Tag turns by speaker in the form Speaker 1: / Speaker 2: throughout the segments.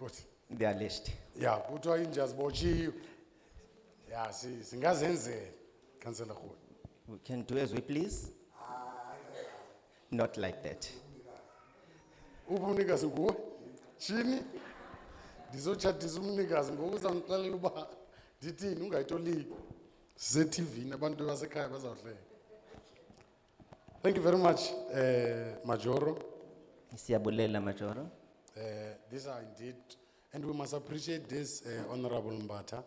Speaker 1: kothi
Speaker 2: They are list.
Speaker 1: ya kuthiwa inja zibotshiwe ya si- singazenzela councillor rhoda
Speaker 2: We can do as we please. Not like that.
Speaker 1: ubunikazi nguwe shini ndizotshatisa umnikazi ngoku uzandixelela uba ndithini ungayitoliki sisetivini abantu basekhaya bazawuhleka thank you very much uh, majoro
Speaker 2: Siyabulela Majoro.
Speaker 1: Uh, these are indeed, and we must appreciate this, uh, Honorable Mbata.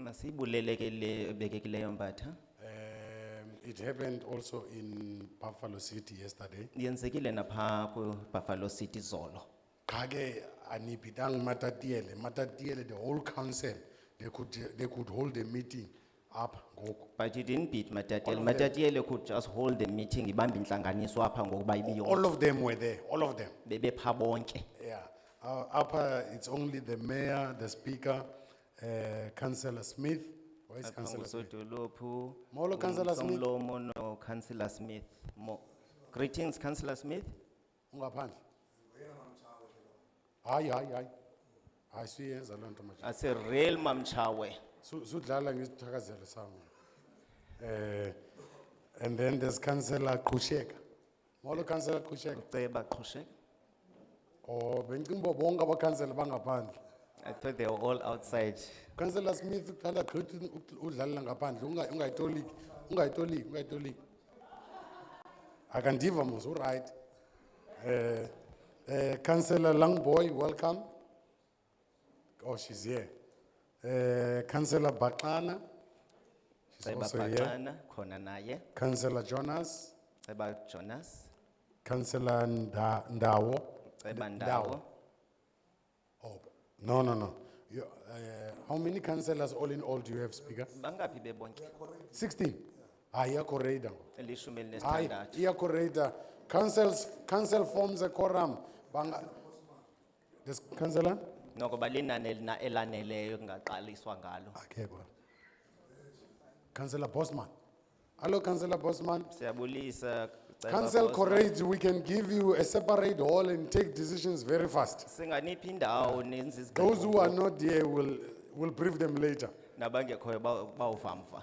Speaker 2: Masibulelekele obekekileyo Mbatha.
Speaker 1: Um, It happened also in Buffalo City yesterday.
Speaker 2: Yenzekile napha ku Buffalo City zolo.
Speaker 1: Kage anipidang matatiele, matatiele, the whole council, they could, they could hold a meeting up ngoku.
Speaker 2: But you didn't beat Matatiele.
Speaker 1: All of them.
Speaker 2: Matatiele could just hold the meeting ibambe intlanganiso apha ngokuba ibiyo.
Speaker 1: All of them were there, all of them,
Speaker 2: Bebe pha bonke.
Speaker 1: yeah. Uh, Upper, it's only the mayor, the speaker, uh, Councillor Smith, where is Councillor Smith?
Speaker 2: Sotolopu.
Speaker 1: Molo, Councillor Smith.
Speaker 2: Umlomo no Councillor Smith. Mo- Greetings Councillor Smith.
Speaker 1: ungaphandle hayi hayi hayi hayi suyenza loo nto manje
Speaker 2: As a real mamchawe.
Speaker 1: Su- sudlala ngesithakazelo sam um and then there's councillor qhusheka molo councillor qhusheka
Speaker 2: Uceba Qhoshe.
Speaker 1: o bendicinga Oh, uba bonke abakhansela bangaphandle
Speaker 2: I thought they were all outside.
Speaker 1: councillor smith uthanda gqithi u- udlalela ngaphandle unga- ungayitoliki ungayitoliki ungayitoliki akandiva mos urayithi um um councillor langboy welcome oh she's here um councillor baxana she's
Speaker 2: Uceba
Speaker 1: also here
Speaker 2: Patana, khona naye.
Speaker 1: councillor jonas
Speaker 2: Uceba Jonas,
Speaker 1: councillor Nda- ndawo
Speaker 2: uceba
Speaker 1: Ndawo.
Speaker 2: Ndawo.
Speaker 1: oh no no no You- eh, how many councillors all in all do you have speaker Ah,
Speaker 2: Bangapi bebonke?
Speaker 1: 16 hayi iyakoreyida ngoku
Speaker 2: Elishumi
Speaker 1: hayi
Speaker 2: elinesithandathu.
Speaker 1: iyakoreyida councils council forms a quorum banga this councillor
Speaker 2: Noko balinane elina elaneleyo kungaqaliswa ngalo.
Speaker 1: akekho councillor bosman hello councillor bosman
Speaker 2: Siyabulisa. uceba
Speaker 1: council
Speaker 2: Bosman.
Speaker 1: corrades we can give you a separate hall and take decisions very fast
Speaker 2: Singaniphi indawo nenze
Speaker 1: those
Speaker 2: izigqibo.
Speaker 1: who are not here will will brief them later
Speaker 2: Nabangekhoyo ba- bawuvamva.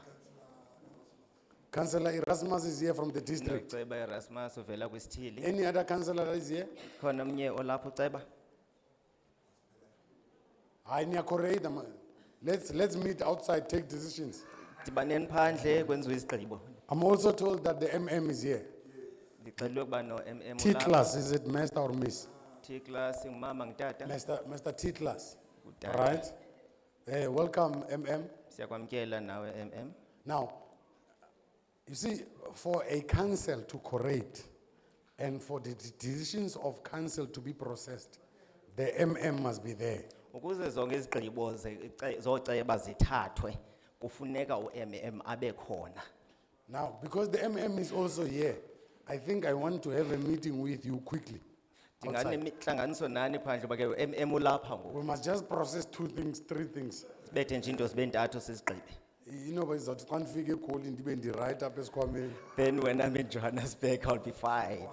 Speaker 1: councillor erasmus is here from the district
Speaker 2: Uceba Erasmus uvela kwisithili.
Speaker 1: any other councillor that is here
Speaker 2: Khona omnye olapha uceba.
Speaker 1: hayi niyakoreyida ma- let's let's meet outside take decisions
Speaker 2: Dibaneni phandle kwenziwe izigqibo.
Speaker 1: i'm also told that the mm is here
Speaker 2: Ndixelelwe ukuba no MM olapha.
Speaker 1: Titlas, is it master or miss?
Speaker 2: T-class ngumama ngutata.
Speaker 1: Master, Master Titlas,
Speaker 2: Utata.
Speaker 1: right? Eh, welcome, MM.
Speaker 2: Siyakwamkela nawe MM.
Speaker 1: Now, you see, for a council to correct and for the de- decisions of council to be processed, the MM must be there.
Speaker 2: Ukuze zonke izigqibo ze- ce- zoceba zithathwe kufuneka uMM abe khona.
Speaker 1: Now, because the MM is also here, I think I want to have a meeting with you quickly.
Speaker 2: Ndingane
Speaker 1: outside.
Speaker 2: mitlanganiso nani phandle bake uMM ulapha ngoku.
Speaker 1: We must just process two things, three things.
Speaker 2: Sibethe nje into sibe ntathu sizigqibe.
Speaker 1: You know, but it's not one figure calling, depending right up as Kwame.
Speaker 2: Then when I'm in Johannesburg, I'll be fine.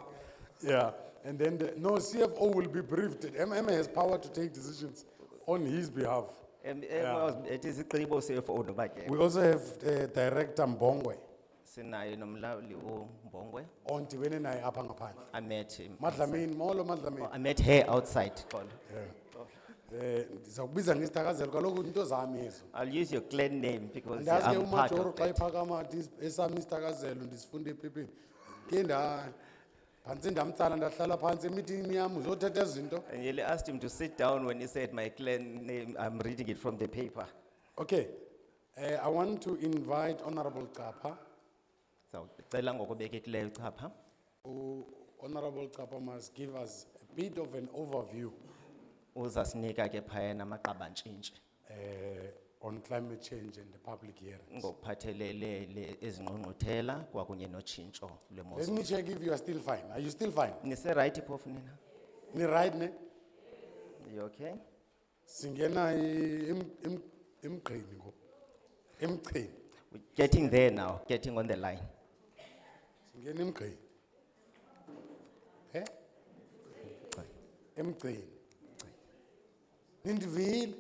Speaker 1: Yeah, and then, the- no, CFO will be briefed, MMA has power to take decisions on his behalf.
Speaker 2: MM uzibethe izigqibo CFO noba ke.
Speaker 1: We also have uh, Director Mbongwe,
Speaker 2: Sinaye nomlawuli uMbongwe.
Speaker 1: onti wenena apa ngaphandle.
Speaker 2: I met him.
Speaker 1: Madlamini, molo Madlamini.
Speaker 2: I met her outside, Xolo.
Speaker 1: Eh, ndizakubiza ngesithakazelo kaloku into zami ezo.
Speaker 2: I'll use your clan name because
Speaker 1: Ndazi ke
Speaker 2: I'm part
Speaker 1: umajoro
Speaker 2: of
Speaker 1: xa
Speaker 2: that.
Speaker 1: iphakama athi esami isithakazelo ndisifunde ephepheni. Ke nda phantsi ndamtsala ndahlala phantsi emitini yam uzothetha izinto.
Speaker 2: And Yele asked him to sit down when he said my clan name, I'm reading it from the paper.
Speaker 1: Okay. Eh, I want to invite Honorable Kapa.
Speaker 2: So, cela ngokubekekileyo chapha.
Speaker 1: who Honorable Kapa must give us a bit of an overview
Speaker 2: Uzasinika ke phayana amaqabantshintshi
Speaker 1: uh, on climate change and the public hearing.
Speaker 2: ngokuphathelele le ezingqungquthela kwakunye notshintsho
Speaker 1: Let
Speaker 2: lwemozulu.
Speaker 1: me check if you are still fine. Are you still fine?
Speaker 2: Nise right phofu nina?
Speaker 1: Ni right ne?
Speaker 2: You okay?
Speaker 1: Singena i- im, im, imkrini ngo. Imkrini.
Speaker 2: We're getting there now, getting on the line.
Speaker 1: Singena imkrini. Eh? Imkrini. nindivile